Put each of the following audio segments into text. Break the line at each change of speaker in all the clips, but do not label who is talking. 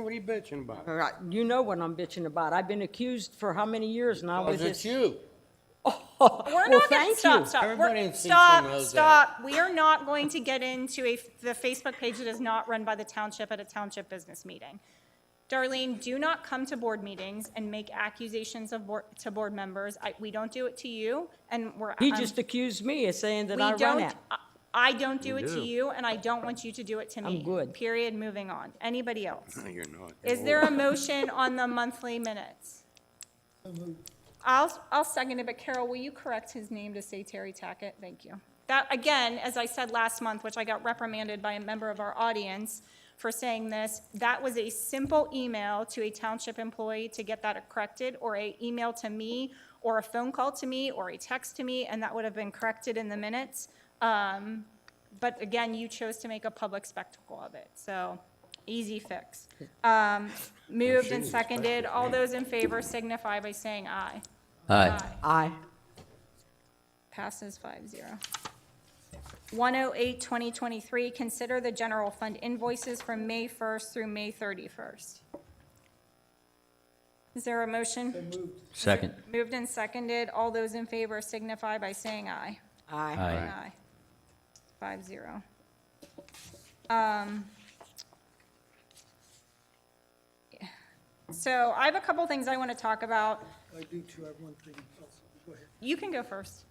What are you bitching about?
All right, you know what I'm bitching about. I've been accused for how many years
Oh,
now with
Because it's
this?
you.
We're
Well,
not going
thank
to, stop,
you.
stop.
Everybody
We're-
in Cecil
Stop,
knows
stop. We are not going to get into a, the Facebook page that is not run by the township at a township business meeting. Darlene, do not come to board meetings and make accusations of board, to board members. I, we don't do it to you, and we're.
He
I'm-
just accused me of saying that
we
I run
don't-
it.
I- I don't do it to
do.
you, and I don't want you to do it to me.
good.
Period, moving on. Anybody else?
No, you're not.
Is there a motion on the monthly minutes? I'll, I'll second it, but Carol, will you correct his name to say Terry Tackett? Thank you. That, again, as I said last month, which I got reprimanded by a member of our audience for saying this, that was a simple email to a township employee to get that corrected, or a email to me, or a phone call to me, or a text to me, and that would have been corrected in the minutes. Um, But again, you chose to make a public spectacle of it, so easy fix. Um, Moved and seconded, all those in favor signify by saying aye.
Aye.
I,
Passes five zero. 108, 2023, consider the general fund invoices from May 1st through May 31st. Is there a motion?
Second.
Moved and seconded, all those in favor signify by saying aye.
I,
Aye.
Aye. Five zero. Um. So I have a couple things I want to talk about.
I do too, I have one thing else, go ahead.
You can go first.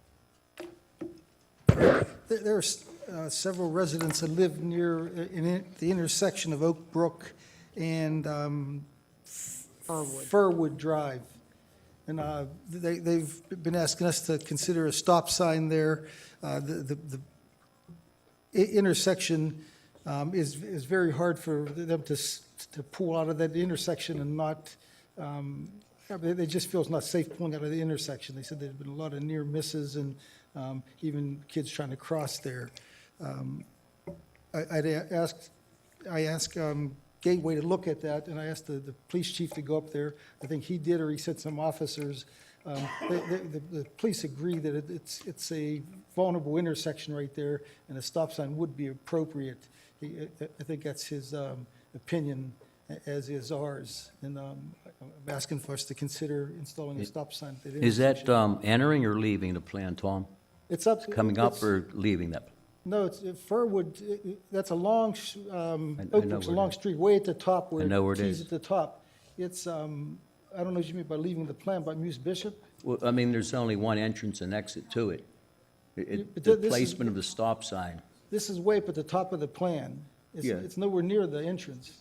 There- There are s- uh, several residents that live near, uh, in it- the intersection of Oak Brook and um,
Irwood.
Furwood Drive. And uh, they, they've been asking us to consider a stop sign there. Uh, The, the the i- intersection um, is, is very hard for them to, s- to pull out of that intersection and not, yeah, but they just feel it's not safe pulling out of the intersection. They said there'd been a lot of near misses and um, even kids trying to cross there. Um, I- I'd a- asked, I asked um, Gateway to look at that, and I asked the, the police chief to go up there. I think he did, or he sent some officers. Um, The, the- the- the police agree that it- it's, it's a vulnerable intersection right there, and a stop sign would be appropriate. He- I I think that's his um, opinion, a- as is ours. And um, I'm asking for us to consider installing a stop sign at that
Is that
intersection.
um, entering or leaving the plan, Tom?
It's up,
Coming up
it's-
or leaving that?
No, it's uh, Furwood, uh, uh, that's a long, sh- um,
I- I
Oak
know
Brook's a
where it
long
is.
street, way at the top where.
I know where it is.
tees at the top. It's, um, I don't know what you mean by leaving the plan, by Muse Bishop?
Well, I mean, there's only one entrance and exit to it. It- it-
But
The
th- this is-
placement of the stop sign.
This is way up at the top of the plan. It's-
Yeah.
It's nowhere near the entrance.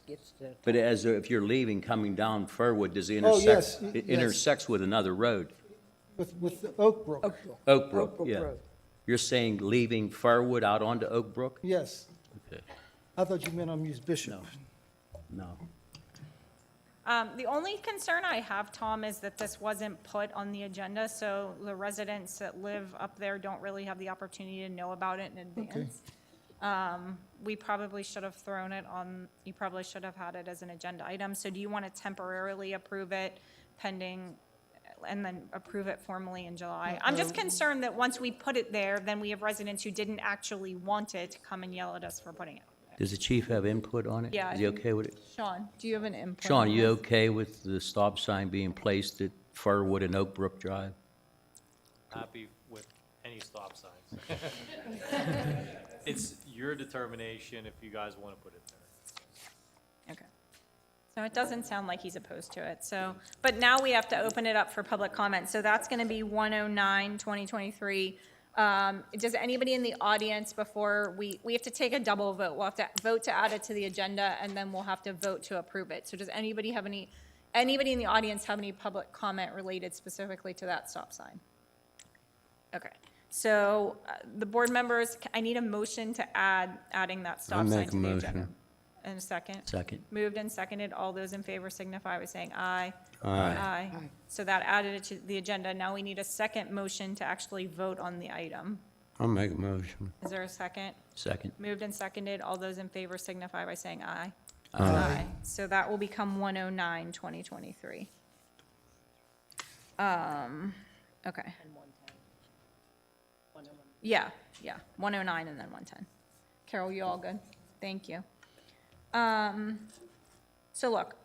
But as, if you're leaving, coming down Furwood, does it
Oh,
intersect?
yes, y-
It
yes.
intersects with another road,
With, with Oak Brook,
Oak Brook,
Brook
yeah.
Road.
You're saying leaving Furwood out onto Oak Brook?
yes.
Okay.
I thought you meant on Muse Bishop.
No.
Um, the only concern I have, Tom, is that this wasn't put on the agenda, so the residents that live up there don't really have the opportunity to know about it in advance. Um, we probably should have thrown it on, you probably should have had it as an agenda item, so do you want to temporarily approve it pending, and then approve it formally in July? I'm just concerned that once we put it there, then we have residents who didn't actually want it to come and yell at us for putting it.
Does the chief have input on it?
Yeah, I
Is he
think-
okay with it?
Sean, do you have an input?
Sean,
on
you
this?
okay with the stop sign being placed at Furwood and Oak Brook Drive?
happy with any stop signs. It's your determination if you guys want to put it there.
Okay. So it doesn't sound like he's opposed to it, so, but now we have to open it up for public comment, so that's gonna be 109, 2023. Um, does anybody in the audience before, we, we have to take a double vote, we'll have to vote to add it to the agenda, and then we'll have to vote to approve it. So does anybody have any, anybody in the audience have any public comment related specifically to that stop sign? Okay, so, uh, the board members, I need a motion to add, adding that stop sign
make
to
a
the
motion.
agenda. And a second?
Second.
Moved and seconded. All those in favor signify by saying aye.
Aye.
Aye. So that added it to the agenda. Now we need a second motion to actually vote on the item.
I'll make a motion.
Is there a second?
Second.
Moved and seconded. All those in favor signify by saying aye. Aye. So that will become 109, 2023. Um, okay. Yeah, yeah, 109 and then 110. Carol, you all good? Thank you. Um, So look,